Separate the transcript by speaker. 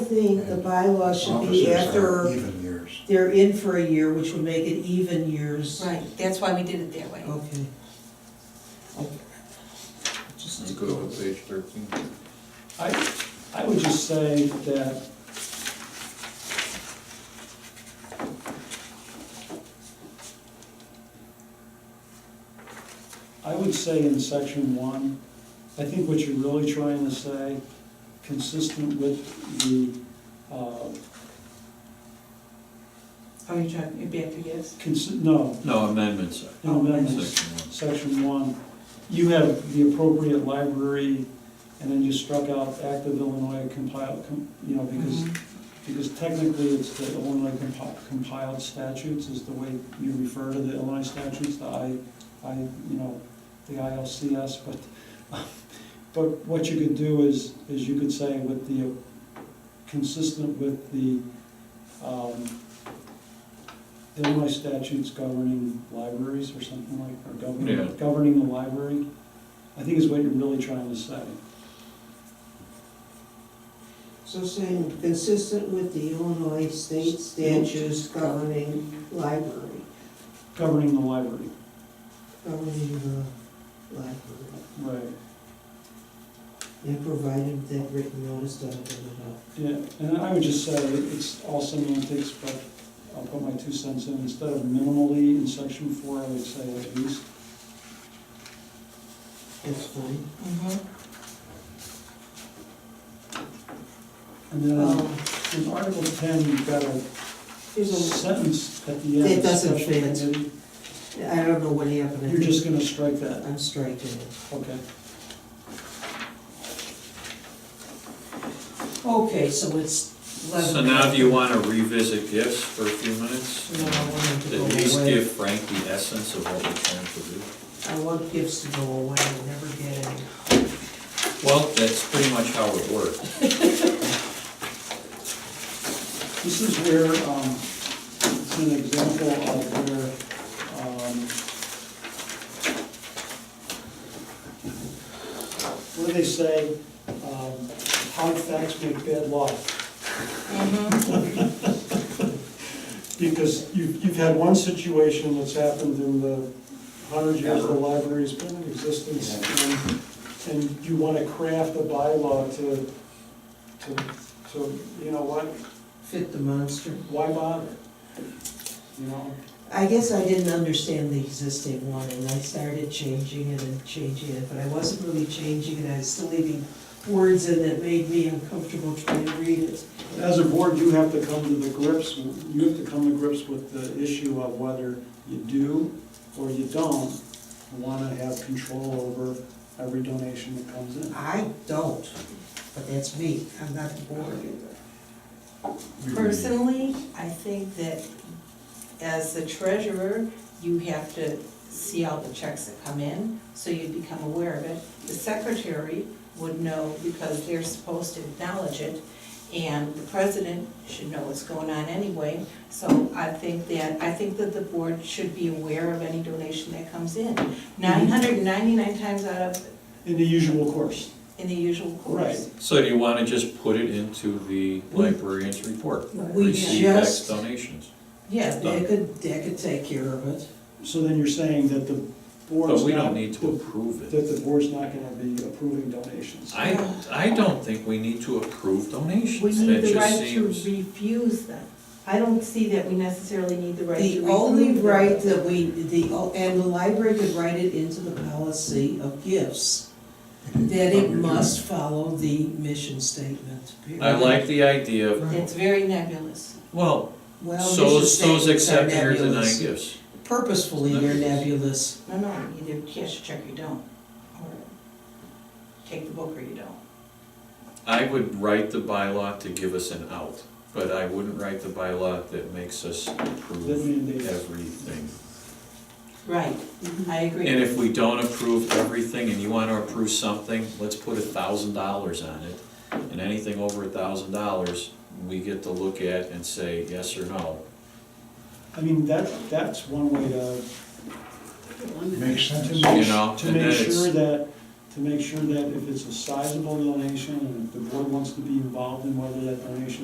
Speaker 1: think the bylaw should be
Speaker 2: Officers
Speaker 1: after
Speaker 2: are Even years.
Speaker 1: they're in for a year, which would make it even years.
Speaker 3: Right, that's why we did it that way.
Speaker 1: Okay. Okay. Just to
Speaker 4: Go to page thirteen.
Speaker 5: I, I would just say that I would say in section one, I think what you're really trying to say, consistent with the, uh,
Speaker 3: Are you trying, you're back to yes?
Speaker 5: consi- no,
Speaker 4: No, amendments,
Speaker 5: no amendments.
Speaker 4: section one.
Speaker 5: section one, you have the appropriate library, and then you struck out active Illinois compiled, com- you know, because, because technically it's the Illinois compi- compiled statutes is the way you refer to the Illinois statutes, the I, I, you know, the ILCS, but, but what you could do is, is you could say with the, consistent with the, um, Illinois statutes governing libraries or something like, or
Speaker 4: Yeah.
Speaker 5: governing, governing the library, I think is what you're really trying to say.
Speaker 1: So saying consistent with the Illinois state statutes governing library,
Speaker 5: Governing the library,
Speaker 1: governing the library,
Speaker 5: right.
Speaker 1: and provided that written notice, da, da, da, da.
Speaker 5: Yeah, and I would just say it's all semantics, but I'll put my two cents in. Instead of minimally in section four, I would say at least.
Speaker 1: That's fine.
Speaker 3: Mm-hmm,
Speaker 5: And then um,
Speaker 1: Um,
Speaker 5: in Article ten, you've got a
Speaker 1: Here's
Speaker 5: sentence at the end.
Speaker 1: It doesn't
Speaker 5: special
Speaker 1: fit.
Speaker 5: committee.
Speaker 1: a, I don't know what happened. I
Speaker 5: You're
Speaker 1: think
Speaker 5: just gonna strike that,
Speaker 1: I'm striking it.
Speaker 5: okay.
Speaker 1: Okay, so it's eleven.
Speaker 4: So now do you wanna revisit gifts for a few minutes?
Speaker 1: No, I want it to
Speaker 4: At
Speaker 1: go
Speaker 4: least
Speaker 1: away.
Speaker 4: give Frank the essence of what we're trying to do.
Speaker 1: I want gifts to go away, I never get any.
Speaker 4: Well, that's pretty much how it worked.
Speaker 5: This is where, um, it's an example of where, um, what do they say? Um, Hard facts make bad law.
Speaker 3: mm-hmm.
Speaker 5: Because you've, you've had one situation that's happened in the hundred years the library's been in existence, and, and you wanna craft a bylaw to, to, to, you know what,
Speaker 1: Fit the monster.
Speaker 5: why bother? You know,
Speaker 1: I guess I didn't understand the existing one, and I started changing it and changing it, but I wasn't really changing it, I was still leaving words in that made me uncomfortable trying to read it.
Speaker 5: as a board, you have to come to the grips, you have to come to grips with the issue of whether you do or you don't want to have control over every donation that comes in.
Speaker 1: I don't, but that's me, I'm not the board.
Speaker 3: Personally, I think that as the treasurer, you have to see all the checks that come in, so you become aware of it. The secretary would know because they're supposed to acknowledge it, and the president should know what's going on anyway. So I think that, I think that the board should be aware of any donation that comes in. Nine hundred and ninety-nine times out of,
Speaker 5: In the usual course.
Speaker 3: in the usual course.
Speaker 4: So do you wanna just put it into the librarian's report?
Speaker 1: We
Speaker 4: Receive X
Speaker 1: just-
Speaker 4: donations.
Speaker 3: Yeah,
Speaker 1: That could, that could take care of it.
Speaker 5: So then you're saying that the board's not.
Speaker 4: But we don't need to approve
Speaker 5: That
Speaker 4: it.
Speaker 5: the board's not going to be approving donations.
Speaker 4: I, I don't think we need to approve donations.
Speaker 3: We need the
Speaker 4: That just
Speaker 3: right to
Speaker 4: seems-
Speaker 3: refuse them. I don't see that we necessarily need the right to
Speaker 1: The
Speaker 3: refuse.
Speaker 1: only
Speaker 3: them.
Speaker 1: right that we, the, o- and the library could write it into the policy of gifts, that it must follow the mission statement. period.
Speaker 4: I like the idea of,
Speaker 3: It's very nebulous.
Speaker 4: well,
Speaker 1: Well,
Speaker 4: so,
Speaker 1: mission
Speaker 4: so's
Speaker 1: statements are
Speaker 4: accepting or
Speaker 1: nebulous.
Speaker 4: denying gifts.
Speaker 1: Purposefully, they're
Speaker 4: Nebulous.
Speaker 1: nebulous.
Speaker 3: No, no, you either cash a check or you don't, or take the book or you don't.
Speaker 4: I would write the bylaw to give us an out, but I wouldn't write the bylaw that makes us
Speaker 5: That
Speaker 4: approve
Speaker 5: mandates-
Speaker 4: everything.
Speaker 3: Right, I agree.
Speaker 4: And if we don't approve everything and you wanna approve something, let's put a thousand dollars on it. And anything over a thousand dollars, we get to look at and say yes or no.
Speaker 5: I mean, that, that's one way to
Speaker 2: Makes sense.
Speaker 5: To
Speaker 4: You
Speaker 5: make-
Speaker 4: know,
Speaker 5: To
Speaker 4: and
Speaker 5: make
Speaker 4: then it's-
Speaker 5: sure that, to make sure that if it's a sizable donation, and if the board wants to be involved in whether that donation